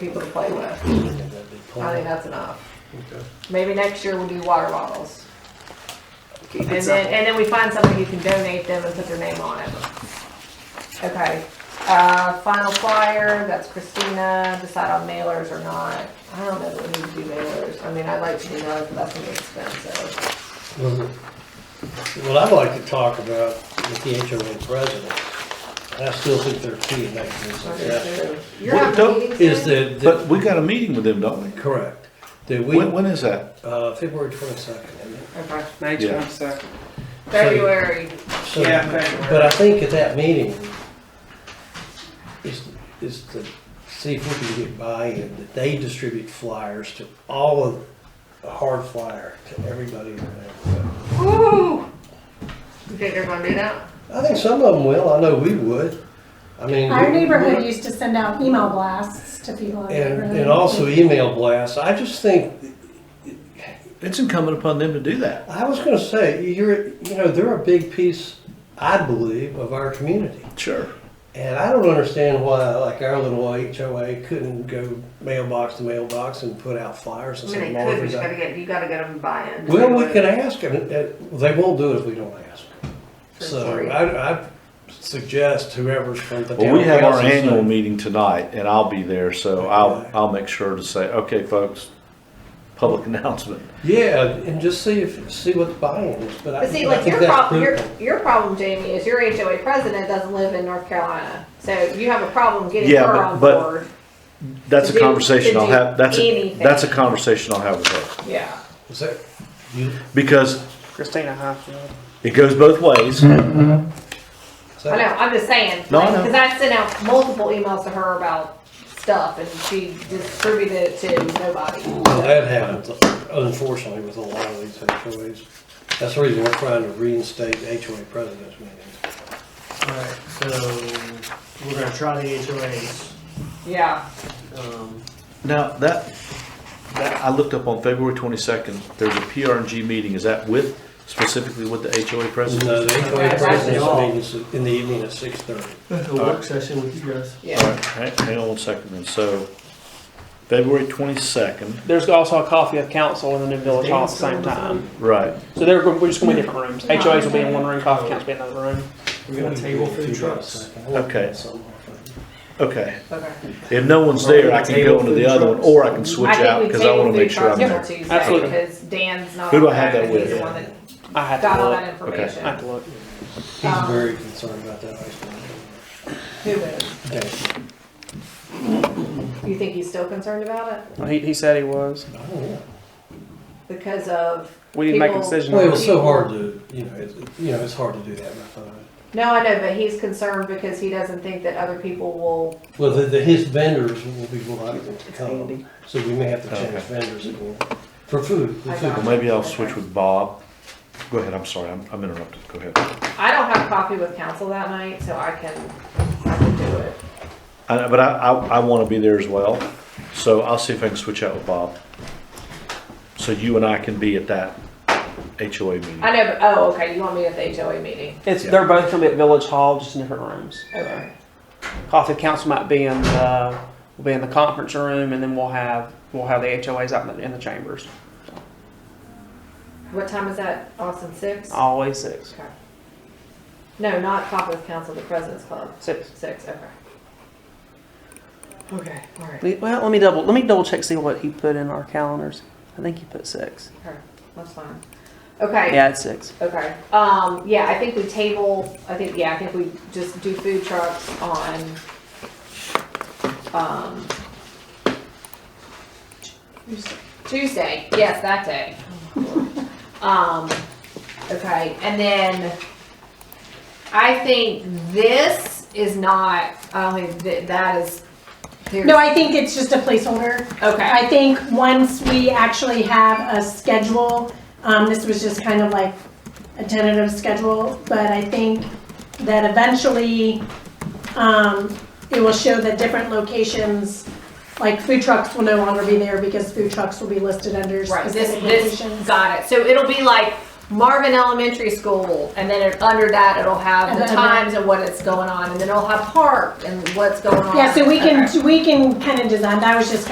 people to play with. I think that's enough. Maybe next year we'll do water bottles. Keep it And then, simple. and then we find something you can donate them and put their name on it. Okay, uh, final flyer, that's Christina, decide on mailers or not. I don't know that we need to do mailers. I mean, I'd like to do that, but that's gonna be expensive. What I'd like to talk about with the HOA president, and I still think they're key in making this I successful. do too. You're What having a don't- meeting Is soon? that, But that- we got a meeting with them, don't we? correct, that we, When, when is that? uh, February twenty-second. Okay. May Yeah. twenty-second. February, So, Yeah, February. but I think at that meeting is, is to see if we can get buy-in, that they distribute flyers to all of, a hard flyer to everybody in the neighborhood. woo! You think they're gonna do that? I think some of them will, I know we would. I mean. Our we- neighborhood used to send out email blasts to people. in the And, neighborhood. and also e- email blasts. I just think, It's incumbent upon them to do that. I was gonna say, you're, you know, they're a big piece, I believe, of our community. Sure. And I don't understand why, like, our little HOA couldn't go mailbox to mailbox and put out flyers I and mean, say. they could, "Marvin but you gotta Day." get, you gotta get them buy-in. Well, we can ask them. It- They won't do it if we don't ask. For So free. I, I suggest whoever's from the town. Well, we have our council say, annual meeting tonight and I'll be there, so I'll, I'll make sure to say, okay, folks, public announcement. Yeah, and just see if, see what the buy-in is, but I. But see, I like think your that's problem, your, critical. your problem, Jamie, is your HOA president doesn't live in North Carolina, so you have a problem getting Yeah, her but- on but- board. That's To a do- conversation to I'll do have, that's, a- anything. that's a conversation I'll have with her. Yeah. Is that, you, Because Christina Highfield. it goes both ways. is I know, that, I'm just saying, No, I like, know. cause I sent out multiple emails to her about stuff and she distributed it to nobody. well, that happens unfortunately with a lot of these HOAs. That's the reason we're trying to reinstate HOA president's meetings. Alright, so we're gonna try the HOAs. Yeah, Um, Now, that, that, I looked up on February twenty-second, there's a PRNG meeting. Is that with, specifically with the HOA No, president? the HOA That's all. president's meetings in the evening at six thirty. a work session with you guys. All yeah. right, hang hang on one second then. So, February twenty-second, There's also a coffee of council in the new village hall at the same time. right. So they're, we're just gonna be different rooms. HOAs will be in one room, coffee council will be in another room. We're gonna table food trucks. Okay. Okay, Okay. if no one's there, I can go into the other one, or I can switch out, because I wanna make sure I'm there. Absolutely. Because Dan's not. Who do on I have there, that and he's with? the one that I had Got to all look. that information. I had to look. He's very concerned about that ice cream. Who is? Okay. You think he's still concerned about it? He, he said he was. Oh, yeah. Because of, We didn't make a People- decision. Well, on it it. was so hard to, you know, it's, you know, it's hard to do that by phone. no, I know, but he's concerned because he doesn't think that other people will Well, the, the, his vendors will be reluctant to Andy. come, so we may have to change vendors again, for food, for I food. Well, maybe I'll switch with Bob. Go ahead, I'm sorry, I'm, I'm interrupted, go ahead. I don't have coffee with council that night, so I can, I can do it. I- But I, I, I wanna be there as well, so I'll see if I can switch out with Bob. So you and I can be at that HOA meeting. I know, but, oh, okay, you want me at the HOA meeting? It's, they're both gonna be at village hall, just in different rooms. Okay. Coffee of council might be in the, will be in the conference room and then we'll have, we'll have the HOAs out in the, in the chambers. What time is that, Austin, six? Always six. Okay. No, not coffee with council, the president's club, Six. six, okay. Okay, all right, Le- Well, let me double, let me double check, see what he put in our calendars. I think he put six. all right, that's fine. Okay. Yeah, it's six. Okay, um, yeah, I think we table, I think, yeah, I think we just do food trucks on, um, Tuesday, yes, that day. Um, okay, and then I think this is not, I don't think that, that is. No, I think it's just a placeholder. Okay, I think once we actually have a schedule, um, this was just kind of like a tentative schedule, but I think that eventually, um, it will show that different locations, like food trucks will no longer be there because food trucks will be listed under right, this, specific this, locations. got it, so it'll be like, Marvin Elementary School, and then it- under that, it'll have the And then- times and what it's going on, and then it'll have park and what's going on. Yeah, so we uh, Okay. can, we can kind of design, that was just